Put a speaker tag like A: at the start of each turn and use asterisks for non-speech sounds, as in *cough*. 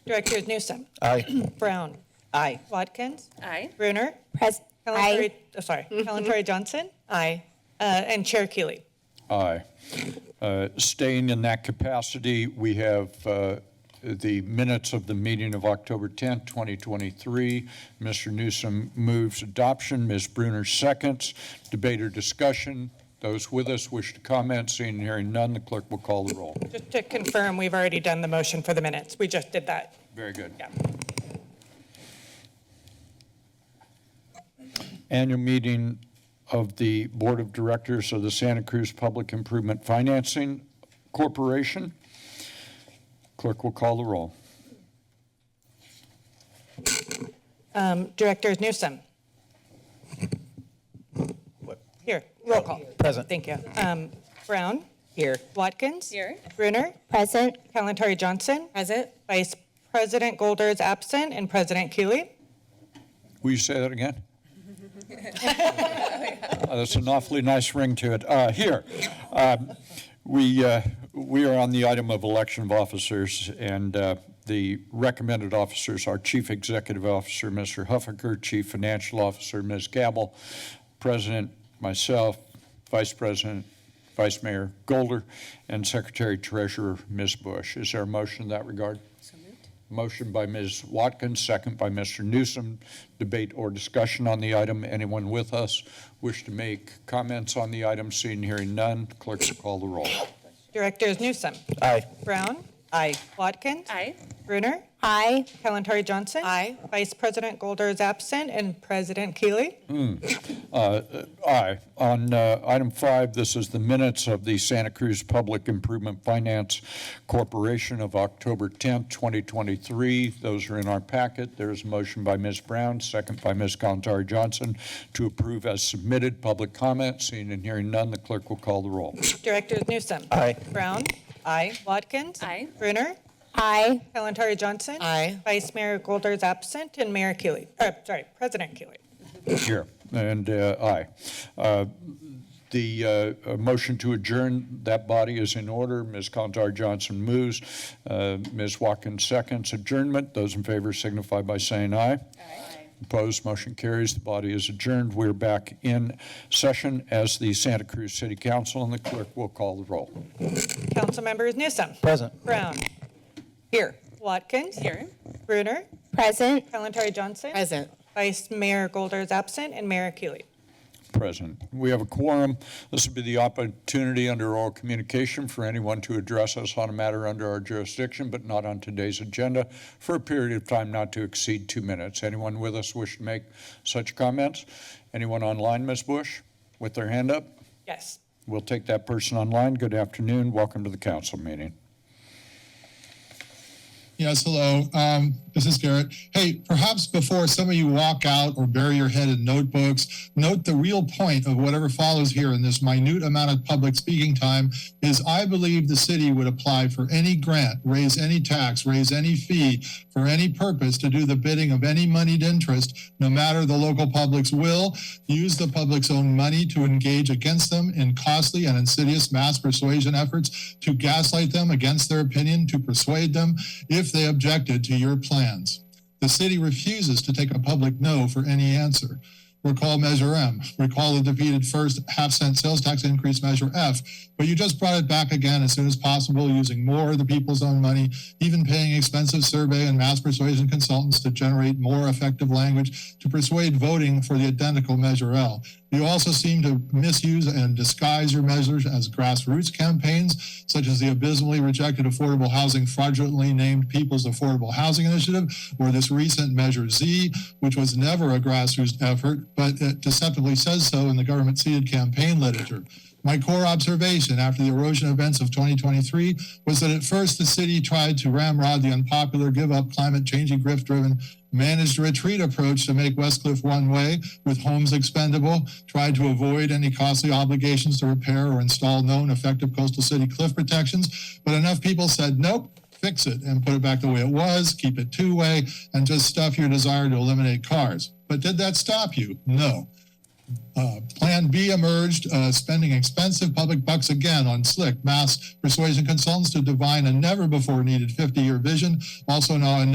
A: Directors Newsom,
B: Aye.
A: *clears throat* Brown,
C: Aye.
A: Watkins,
D: Aye.
A: Brunner,
E: Pres,
A: Calipari,
E: aye. Mm-hmm.
A: oh, sorry, Calipari Johnson, aye, uh, and Chair Keeley.
B: Aye. Uh, Staying in that capacity, we have uh, the minutes of the meeting of October 10, 2023. Mr. Newsom moves adoption, Ms. Bruner seconds. Debate or discussion? Those with us wish to comment, seeing and hearing none, the clerk will call the roll.
A: Just to confirm, we've already done the motion for the minutes. We just did that.
B: Very good.
A: Yeah.
B: Annual meeting of the Board of Directors of the Santa Cruz Public Improvement Financing Corporation. Clerk will call the roll.
A: Um, Directors Newsom. Here, roll call.
C: Present.
A: Thank you. Um, Brown,
C: Here.
A: Watkins.
D: Here.
A: Brunner,
E: Present,
A: Calipari Johnson,
D: Present.
A: Vice President Golder is absent, and President Keeley.
B: Will you say that again? *laughs* Uh, That's an awfully nice ring to it. Uh, Here, um, we, uh, we are on the item of election of officers, and uh, the recommended officers are Chief Executive Officer, Mr. Huffaker, Chief Financial Officer, Ms. Gabel, President, myself, Vice President, Vice Mayor Golder, and Secretary Treasurer, Ms. Bush. Is there a motion in that regard? Motion by Ms. Watkins, second by Mr. Newsom. Debate or discussion on the item. Anyone with us wish to make comments on the item? Seeing, hearing none, clerk will call the roll.
A: Directors Newsom,
C: Aye.
A: Brown,
C: Aye.
A: Watkins.
D: Aye.
A: Brunner,
E: aye.
A: Kalentari Johnson. Aye. Vice President Golder is absent, and President Keeley.
C: Mm.
B: Aye. On uh, item five, this is the minutes of the Santa Cruz Public Improvement Finance Corporation of October 10th, 2023. Those are in our packet. There is a motion by Ms. Brown, second by Ms. Gontari Johnson to approve as submitted. Public comment, seeing and hearing none, the clerk will call the roll.
A: Directors Newsom.
C: Aye.
A: Brown. Aye. Watkins.
D: Aye.
A: Brunner.
E: Aye.
A: Kalentari Johnson.
C: Aye.
A: Vice Mayor Golder is absent, and Mayor Keeley, uh, sorry, President Keeley.
B: Here, and uh, aye. Uh, The uh, uh, motion to adjourn that body is in order. Ms. Contar Johnson moves. Uh, Ms. Watkins seconds adjournment. Those in favor signify by saying aye.
D: Aye.
B: Opposed, motion carries. The body is adjourned. We're back in session as the Santa Cruz City Council, and the clerk will call the roll.
A: Council members Newsom.
C: Present.
A: Brown.
C: Here.
A: Watkins.
D: Here.
A: Brunner.
E: Present,
A: Kalentari Johnson.
C: Present.
A: Vice Mayor Golder is absent, and Mayor Keeley.
B: present. We have a quorum. This would be the opportunity under oral communication for anyone to address us on a matter under our jurisdiction, but not on today's agenda, for a period of time not to exceed two minutes. Anyone with us wish to make such comments? Anyone online, Ms. Bush, with their hand up?
A: Yes.
B: We'll take that person online. Good afternoon. Welcome to the council meeting.
F: Yes, hello. Um, this is Garrett. Hey, perhaps before some of you walk out or bury your head in notebooks, note the real point of whatever follows here in this minute amount of public speaking time is I believe the city would apply for any grant, raise any tax, raise any fee for any purpose to do the bidding of any moneyed interest, no matter the local public's will, use the public's own money to engage against them in costly and insidious mass persuasion efforts to gaslight them against their opinion, to persuade them if they objected to your plans. The city refuses to take a public no for any answer. Recall Measure M. Recall the defeated first half cent sales tax increase Measure F, but you just brought it back again as soon as possible using more of the people's own money, even paying expensive survey and mass persuasion consultants to generate more effective language to persuade voting for the identical Measure L. You also seem to misuse and disguise your measures as grassroots campaigns, such as the abysmally rejected affordable housing fraudulently named People's Affordable Housing Initiative, or this recent Measure Z, which was never a grassroots effort, but it deceptively says so in the government seated campaign literature. My core observation after the erosion events of 2023 was that at first the city tried to ramrod the unpopular, give up climate change and grift driven managed retreat approach to make Westcliff one way with homes expendable, tried to avoid any costly obligations to repair or install known effective coastal city cliff protections, but enough people said, nope, fix it and put it back the way it was, keep it two way, and just stuff your desire to eliminate cars. But did that stop you? No. Uh, Plan B emerged, uh, spending expensive public bucks again on slick mass persuasion consultants to divine a never before needed 50 year vision, also now a